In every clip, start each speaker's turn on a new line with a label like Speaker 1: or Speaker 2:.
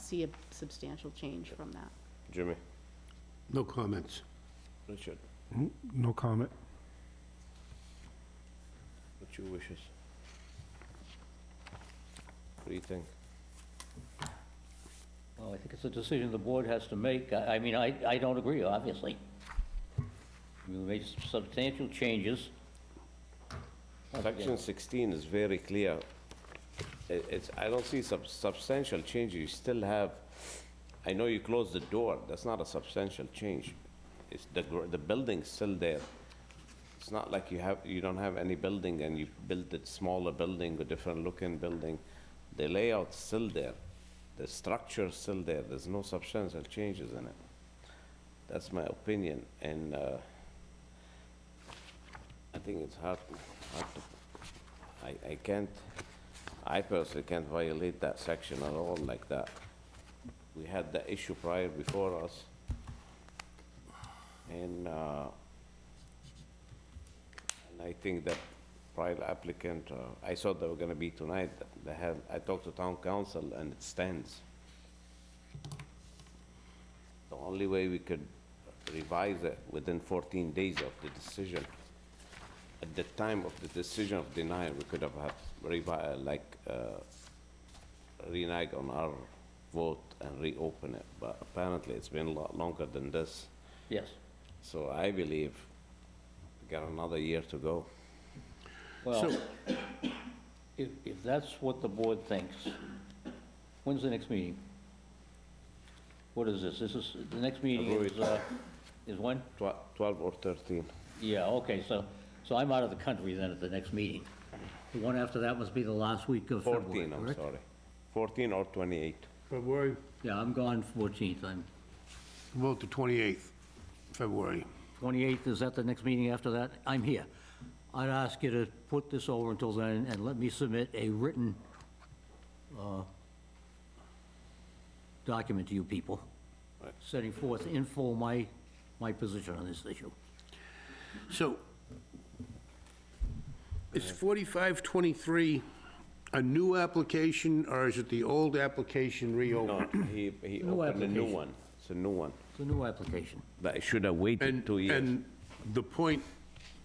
Speaker 1: see a substantial change from that.
Speaker 2: Jimmy?
Speaker 3: No comments.
Speaker 2: Richard,
Speaker 4: No comment.
Speaker 2: what's your wishes? What do you think?
Speaker 5: Well, I think it's a decision the board has to make. I I mean, I, I don't agree, obviously. We made substantial changes. Once again,
Speaker 2: Section 16 is very clear. I- It's, I don't see sub- substantial change, you still have, I know you closed the door, that's not a substantial change. It's, the, gr- the building's still there. It's not like you have, you don't have any building and you built a smaller building, a different looking building. The layout's still there, the structure's still there, there's no substantial changes in it. That's my opinion, and, uh, I think it's hard, hard to I, I can't, I personally can't violate that section at all like that. We had the issue prior before us. And, uh, and I think that prior applicant, uh, I saw they were gonna be tonight, they had, I talked to town council and it stands. The only way we could revise it within fourteen days of the decision at the time of the decision of denial, we could have had revi, like, uh, renege on our vote and reopen it, but apparently it's been a lot longer than this.
Speaker 5: Yes.
Speaker 2: So I believe we got another year to go.
Speaker 5: Well, if, if that's what the board thinks, when's the next meeting? What is this? This is, the next meeting is, uh, is when?
Speaker 2: Tw- Twelve or thirteen.
Speaker 5: Yeah, okay, so, so I'm out of the country then at the next meeting. The one after that must be the last week of February,
Speaker 2: Fourteen, I'm
Speaker 5: correct?
Speaker 2: sorry. Fourteen or twenty-eight.
Speaker 3: February?
Speaker 5: Yeah, I'm gone 14th. I'm,
Speaker 3: Vote the 28th, February.
Speaker 5: 28th, is that the next meeting after that? I'm here. I'd ask you to put this over until then and let me submit a written uh, document to you people, setting forth in full my, my position on this issue.
Speaker 3: So, is 4523 a new application, or is it the old application
Speaker 2: No,
Speaker 3: reopened?
Speaker 2: he, he
Speaker 5: No
Speaker 2: opened a new
Speaker 5: application.
Speaker 2: one. It's a new one.
Speaker 5: It's a new application.
Speaker 2: But I should have waited
Speaker 3: And,
Speaker 2: two years.
Speaker 3: and the point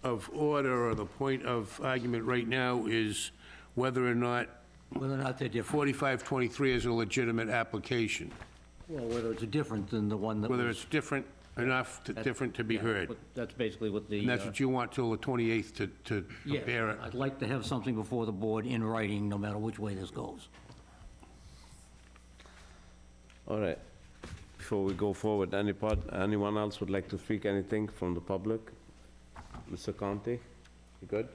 Speaker 3: of order, or the point of argument right now is whether or not
Speaker 5: Whether or not they're different,
Speaker 3: 4523 is a legitimate application,
Speaker 5: well, whether it's different than the one that was...
Speaker 3: whether it's different enough, to- different to be
Speaker 5: Yeah,
Speaker 3: heard.
Speaker 5: but That's basically what the...
Speaker 3: And that's
Speaker 5: uh,
Speaker 3: what you want till the 28th to, to
Speaker 5: Yeah,
Speaker 3: prepare it.
Speaker 5: I'd like to have something before the board in writing, no matter which way this goes.
Speaker 2: All right. Before we go forward, any part, anyone else would like to speak anything from the public? Mr. Conti, you good?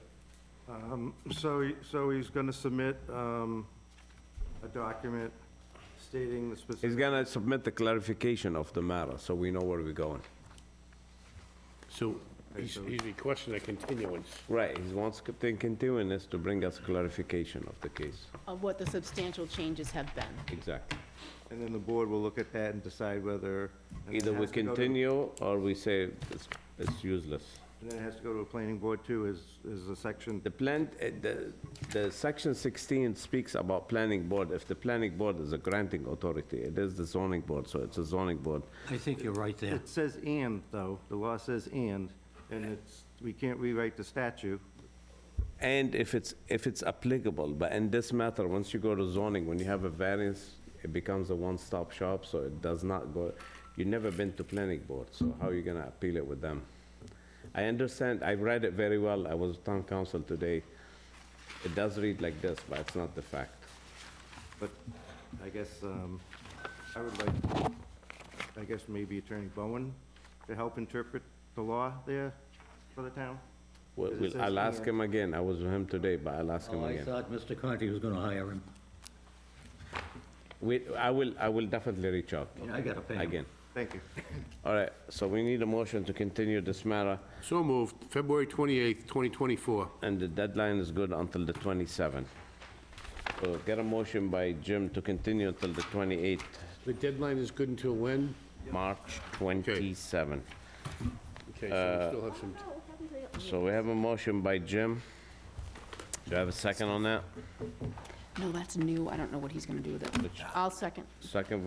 Speaker 6: Um, So, he- so he's going to submit um, a document stating the
Speaker 2: He's
Speaker 6: specific,
Speaker 2: gonna submit the clarification of the matter, so we know where we're going.
Speaker 3: So he's he's requesting a continuance.
Speaker 2: Right, he wants to think continuance to bring us clarification of the case.
Speaker 1: Of what the substantial changes have been.
Speaker 2: Exactly.
Speaker 6: and then the board will look at that and decide whether. and
Speaker 2: Either
Speaker 6: it
Speaker 2: we
Speaker 6: has to go to-
Speaker 2: continue, or we say it's, it's useless.
Speaker 6: And then it has to go to a planning board too, is, is a section,
Speaker 2: The plan, uh, the, the section 16 speaks about planning board. If the planning board is a granting authority, it is the zoning board, so it's a zoning board.
Speaker 5: I think you're right there.
Speaker 6: it says and though, the law says and, and it's, we can't rewrite the statute.
Speaker 2: And if it's, if it's applicable, but in this matter, once you go to zoning, when you have a variance, it becomes a one-stop shop, so it does not go, you've never been to planning board, so how are you gonna appeal it with them? I understand, I read it very well, I was town council today. It does read like this, but it's not the fact.
Speaker 6: But I guess, um, I would like, I guess maybe Attorney Bowen to help interpret the law there for the town?
Speaker 2: Well,
Speaker 6: It
Speaker 2: we'll-
Speaker 6: says
Speaker 2: I'll
Speaker 6: here-
Speaker 2: ask him again, I was with him today, but I'll ask him
Speaker 5: Oh, I
Speaker 2: again.
Speaker 5: thought Mr. Conti was gonna hire him.
Speaker 2: We, I will, I will definitely reach out
Speaker 5: And I gotta pay him.
Speaker 2: again.
Speaker 6: Thank you.
Speaker 2: All right, so we need a motion to continue this matter,
Speaker 3: So moved, February 28th, 2024.
Speaker 2: and the deadline is good until the 27th. So get a motion by Jim to continue until the 28th,
Speaker 3: The deadline is good until when?
Speaker 2: March 27.
Speaker 3: Okay, so we still have some, t-
Speaker 2: So we have a motion by Jim. Do I have a second on that?
Speaker 1: No, that's new. I don't know what he's going to do with it. I'll second.
Speaker 2: Second